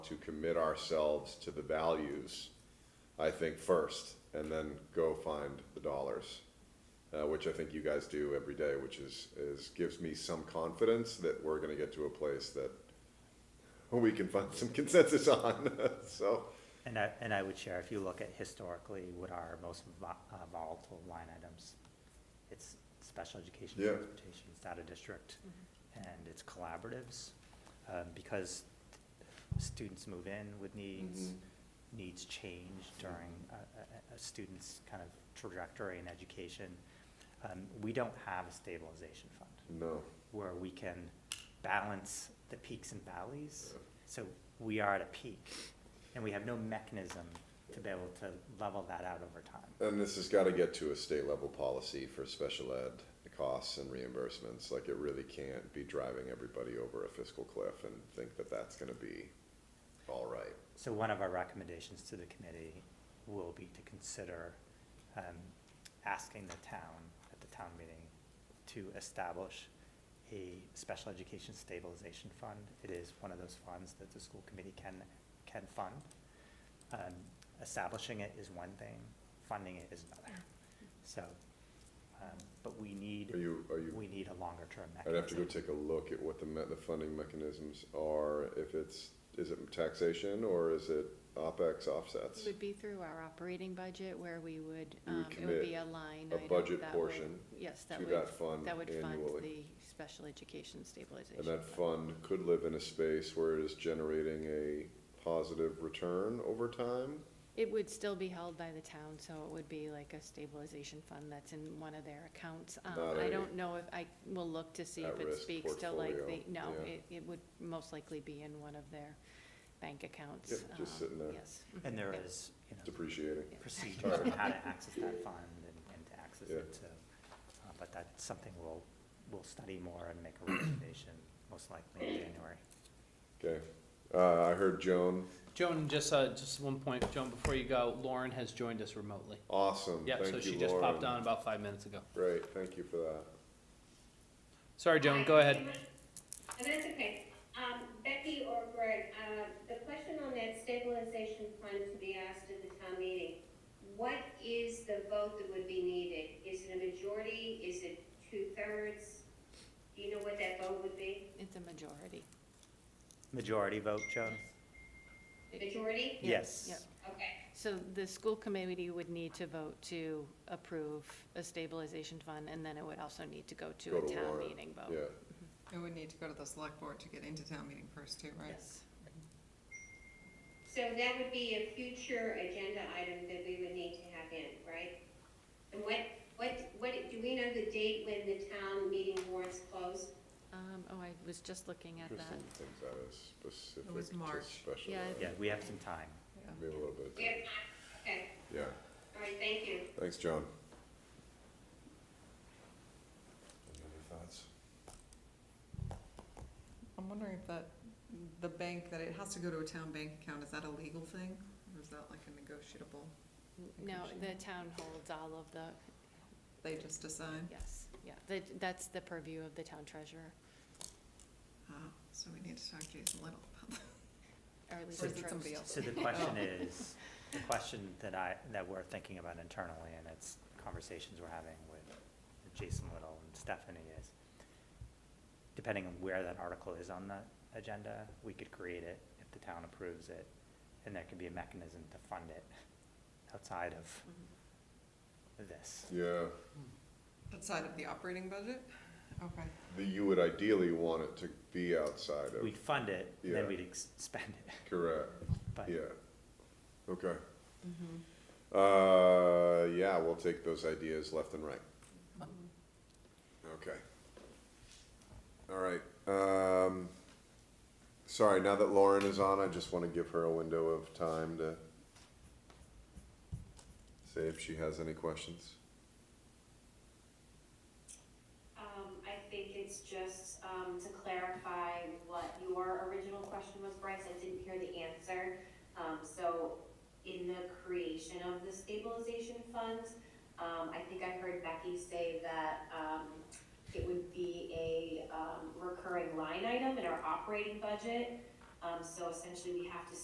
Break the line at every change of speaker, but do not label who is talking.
to commit ourselves to the values, I think first, and then go find the dollars, uh, which I think you guys do every day, which is, is, gives me some confidence that we're gonna get to a place that we can find some consensus on, so.
And I, and I would share, if you look at historically what are our most vo- uh, volatile line items, it's special education,
Yeah.
transportation, it's out of district,
Mm-hmm.
and it's collaboratives. um, Because students move in with needs,
Mm-hmm.
needs change during a, a- a, a student's kind of trajectory in education. Um, We don't have a stabilization fund
No,
where we can balance the peaks and valleys. So we are at a peak, and we have no mechanism to be able to level that out over time.
and this has gotta get to a state level policy for special ed costs and reimbursements, like it really can't be driving everybody over a fiscal cliff and think that that's gonna be all right.
So one of our recommendations to the committee will be to consider um, asking the town, at the town meeting, to establish a special education stabilization fund. It is one of those funds that the school committee can, can fund. Um, Establishing it is one thing, funding it is another. So, um, but we need,
Are you, are you
we need a longer-term
I'd
mechanism.
have to go take a look at what the me- the funding mechanisms are, if it's, is it taxation or is it OpEx offsets?
It would be through our operating budget where we would,
You would
um, it would be
commit
a line
a
item
budget
that would-
portion
Yes, that
To
would,
that fund
that would fund
annually.
the special education stabilization.
And that
fund.
fund could live in a space where it is generating a positive return over time?
It would still be held by the town, so it would be like a stabilization fund that's in one of their accounts. Um,
Not
I
a
don't know if, I will look to see if it
at-risk
speaks to like the,
portfolio,
no,
yeah.
it, it would most likely be in one of their bank accounts.
Yep, just
um,
sitting there.
Yes.
And there
Yep.
is, you know,
Depreciating.
procedures on how to access that fund and, and to access
Yeah.
it, so. uh, But that's something we'll, we'll study more and make a recommendation, most likely in January.
Okay, uh, I heard Joan,
Joan, just, uh, just one point, Joan, before you go, Lauren has joined us remotely.
awesome,
Yep, so
thank
she
you,
just popped
Lauren.
on about five minutes ago.
Great, thank you for that.
Sorry, Joan, go ahead.
And that's okay. Um, Becky or Greg, uh, the question on that stabilization fund to be asked at the town meeting, what is the vote that would be needed? Is it a majority? Is it two-thirds? Do you know what that vote would be?
It's a majority.
Majority vote, Joan?
Majority?
Yes.
Yep.
Okay.
So the school committee would need to vote to approve a stabilization fund, and then it would also need to go to
Go
a
to
town
warrant,
meeting
Yeah,
vote.
It would need to go to the select board to get into town meeting first too, right?
Yes.
So that would be a future agenda item that we would need to have in, right? And what, what, what, do we know the date when the town meeting warrants close?
Um, oh, I was just looking at
Kristen
that.
thinks that is specific
was
to
March.
special
Yeah, I-
Yeah,
ed.
we have some time.
Maybe a little bit,
We have time, okay,
yeah,
all right, thank you.
thanks, Joan. Any other thoughts?
I'm wondering if that, the bank, that it has to go to a town bank account, is that a legal thing? Or is that like a negotiable,
No, the town holds all of the,
they just decide?
yes, yeah, that, that's the purview of the town treasurer,
Ah, so we need to talk to Jason Little about that.
or at least
Or
the
is it somebody
trustee.
else?
So the question is, the question that I, that we're thinking about internally, and it's conversations we're having with Jason Little and Stephanie is, depending on where that article is on the agenda, we could create it if the town approves it, and there could be a mechanism to fund it outside of
Mhm.
this.
Yeah.
Outside of the operating budget? Okay.
that you would ideally want it to be outside of,
We'd fund it, and then
Oh. Yeah.
we'd ex- spend it,
correct,
but
yeah, okay. Uh, yeah, we'll take those ideas left and right. Okay. All right, um, sorry, now that Lauren is on, I just wanna give her a window of time to say if she has any questions.
Um, I think it's just, um, to clarify what your original question was, Bryce, I didn't hear the answer. Um, so in the creation of the stabilization fund, um, I think I heard Becky say that, um, it would be a, um, recurring line item in our operating budget. Um, so essentially we have to